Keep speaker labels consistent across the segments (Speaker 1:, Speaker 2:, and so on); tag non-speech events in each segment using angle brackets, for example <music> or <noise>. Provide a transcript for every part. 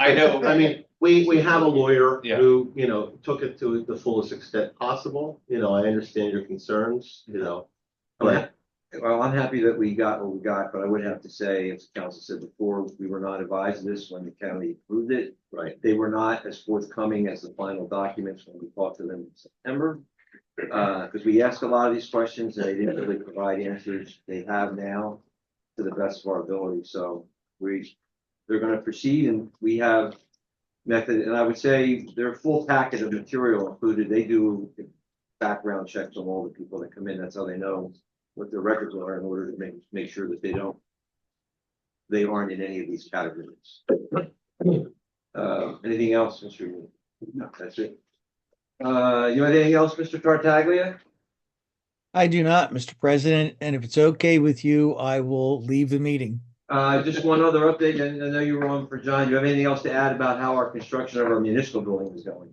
Speaker 1: I know,
Speaker 2: I mean, we, we have a lawyer
Speaker 1: Yeah.
Speaker 2: who, you know, took it to the fullest extent possible. You know, I understand your concerns, you know. But,
Speaker 3: Well, I'm happy that we got what we got, but I would have to say, as the council said before, we were not advised of this when the county approved it.
Speaker 2: right,
Speaker 3: They were not as forthcoming as the final documents when we talked to them in September. Uh, because we asked a lot of these questions and they didn't really provide answers. They have now to the best of our ability, so we, they're gonna proceed and we have method, and I would say their full packet of material included, they do background checks on all the people that come in. That's how they know what their records are in order to make, make sure that they don't they aren't in any of these categories. Uh, anything else, Mr. Green? No. That's it. Uh, you have anything else, Mr. Tartaglia?
Speaker 4: I do not, Mr. President, and if it's okay with you, I will leave the meeting.
Speaker 3: Uh, just one other update, and I know you were on for John. Do you have anything else to add about how our construction of our municipal building is going?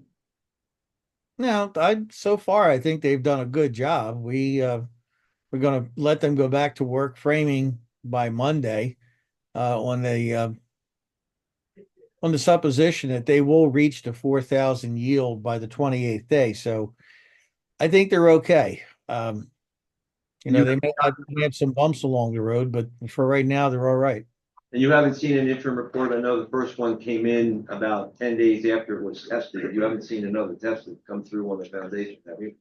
Speaker 4: Now, I, so far, I think they've done a good job. We, uh, we're gonna let them go back to work framing by Monday, uh, on the, uh, on the supposition that they will reach the four thousand yield by the twenty-eighth day, so I think they're okay. Um, you know, they may have- may have some bumps along the road, but for right now, they're all right.
Speaker 3: And you haven't seen an interim report. I know the first one came in about ten days after it was tested. You haven't seen another tested come through on the foundation, have you?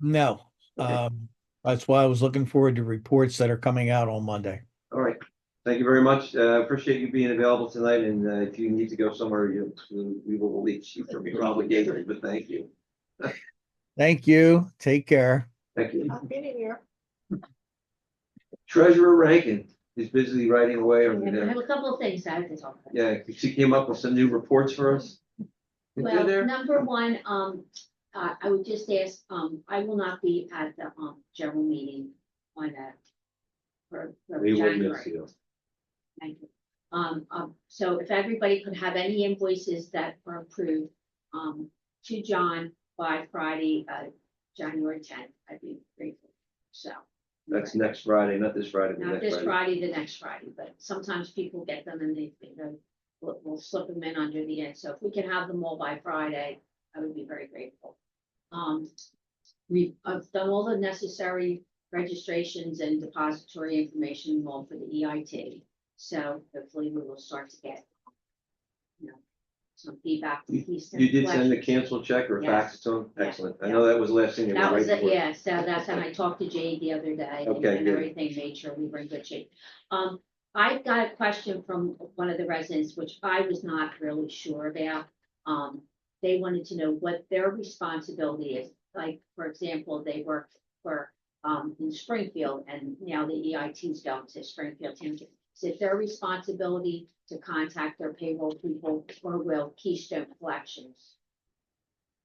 Speaker 4: No,
Speaker 3: Okay.
Speaker 4: um, that's why I was looking forward to reports that are coming out on Monday.
Speaker 3: All right, thank you very much. Uh, appreciate you being available tonight, and uh, if you need to go somewhere, you, we will release you from your obligation, but thank you.
Speaker 4: Thank you. Take care.
Speaker 3: Thank you.
Speaker 5: I've been in here.
Speaker 3: Treasurer Rankin is busily writing away on
Speaker 6: I
Speaker 3: there.
Speaker 6: have a couple of things I have to talk about.
Speaker 3: Yeah, she came up with some new reports for us. Is there
Speaker 6: Well,
Speaker 3: there?
Speaker 6: number one, um, uh, I would just ask, um, I will not be at the, um, general meeting on that. For, for
Speaker 2: we will miss
Speaker 6: January,
Speaker 2: you.
Speaker 6: thank you. Um, um, so if everybody could have any invoices that are approved, um, to John by Friday, uh, January tenth, I'd be grateful, so.
Speaker 3: That's next Friday, not this Friday, but
Speaker 6: Not
Speaker 3: next
Speaker 6: this
Speaker 3: Friday.
Speaker 6: Friday, the next Friday, but sometimes people get them and they, you know, we'll, we'll slip them in under the end. So if we can have them all by Friday, I would be very grateful. Um, we've, I've done all the necessary registrations and depository information all for the EIT. So hopefully we will start to get, you know, some feedback. from Keystone
Speaker 3: You did send the
Speaker 6: Collection.
Speaker 3: cancel check or fax to him?
Speaker 6: Yeah.
Speaker 3: Excellent. I know that was the last thing. you were
Speaker 6: That was,
Speaker 3: writing
Speaker 6: it,
Speaker 3: for.
Speaker 6: yeah, so that's, and I talked to Jay the other day and
Speaker 3: Okay,
Speaker 6: and
Speaker 3: good.
Speaker 6: everything, made sure we were in good shape. Um, I got a question from one of the residents, which I was not really sure about. Um, they wanted to know what their responsibility is, like, for example, they work for, um, in Springfield and now the E EIT's going to Springfield Township. Is it their responsibility to contact their payroll people or will Keystone Collections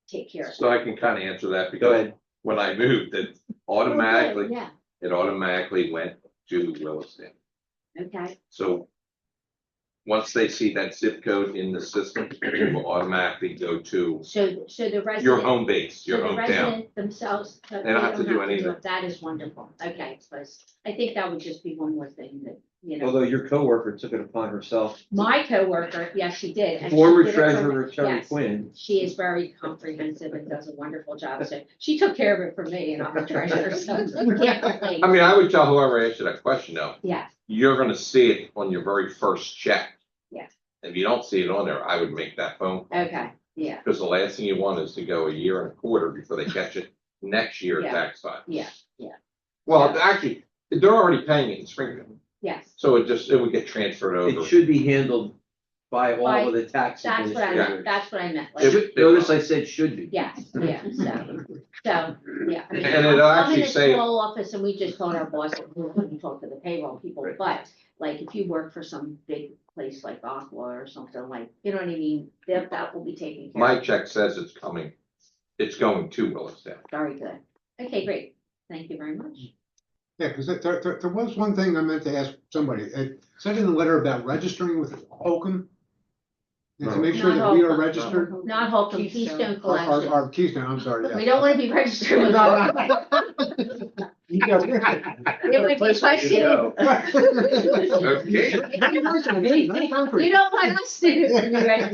Speaker 6: take care of it?
Speaker 7: So I can kind of answer that
Speaker 3: Go
Speaker 7: because
Speaker 3: ahead.
Speaker 7: when I moved, it
Speaker 6: Oh, good,
Speaker 7: automatically,
Speaker 6: Yeah,
Speaker 7: it automatically went to Williston.
Speaker 6: okay.
Speaker 7: So once they see that zip code in the system, it will automatically go to
Speaker 6: So, so the resident.
Speaker 7: your home base,
Speaker 6: so
Speaker 7: your
Speaker 6: the
Speaker 7: hometown.
Speaker 6: resident Themselves. uh,
Speaker 7: They don't have to do anything.
Speaker 6: it. That is wonderful. Okay, because I think that would just be one more thing that, you know,
Speaker 3: Although your coworker took it upon herself.
Speaker 6: my coworker, yes, she did. and she
Speaker 3: Former
Speaker 6: did it for-
Speaker 3: treasurer Terry
Speaker 6: yes.
Speaker 3: Quinn.
Speaker 6: She is very comprehensive and does a wonderful job. So she took care of it for me and I'm the treasurer, so I can't complain.
Speaker 7: I mean, I would tell whoever answered that question though,
Speaker 6: Yeah,
Speaker 7: you're gonna see it on your very first check.
Speaker 6: Yeah.
Speaker 7: If you don't see it on there, I would make that phone call.
Speaker 6: okay, yeah,
Speaker 7: Because the last thing you want is to go a year and a quarter before they catch it next year
Speaker 6: Yeah.
Speaker 7: tax time.
Speaker 6: yeah,
Speaker 7: Well, actually, they're already paying it in Springfield.
Speaker 6: yes.
Speaker 7: So it just, it would get transferred
Speaker 3: It
Speaker 7: over.
Speaker 3: should be handled by all of the tax.
Speaker 6: That's what I,
Speaker 3: administrators.
Speaker 6: meant. that's what I meant. like,
Speaker 7: It would-
Speaker 3: Should- Notice I said should be.
Speaker 6: Yes, yeah,
Speaker 8: Mm-hmm.
Speaker 6: so, so, yeah. I mean,
Speaker 7: And it'll
Speaker 6: I'm- I'm in
Speaker 7: actually
Speaker 6: a
Speaker 7: say-
Speaker 6: Small office and we just told our boss that we wouldn't talk to the payroll people,
Speaker 3: Right.
Speaker 6: but like if you work for some big place like Aqua or something like, you know what I mean? That, that will be taken care
Speaker 7: My
Speaker 6: of.
Speaker 7: check says it's coming, it's going to Williston.
Speaker 6: Very good. Okay, great. Thank you very much.
Speaker 8: Yeah, because there, there, there was one thing I meant to ask somebody. It said in the letter about registering with Holcomb. And to make sure that we
Speaker 6: Not
Speaker 8: are
Speaker 6: Holcomb.
Speaker 8: registered,
Speaker 6: Not Holcomb,
Speaker 5: Keystone.
Speaker 6: Keystone
Speaker 8: or, or,
Speaker 6: Collection.
Speaker 8: or Keystone, I'm sorry,
Speaker 6: We
Speaker 8: yeah.
Speaker 6: don't want to be registered with Holcomb. <laughs> It would be questioned.
Speaker 8: Yeah.
Speaker 7: Okay.
Speaker 6: <laughs>
Speaker 8: <laughs> Nice, nice, nice, nice.
Speaker 6: You don't want us to be registered.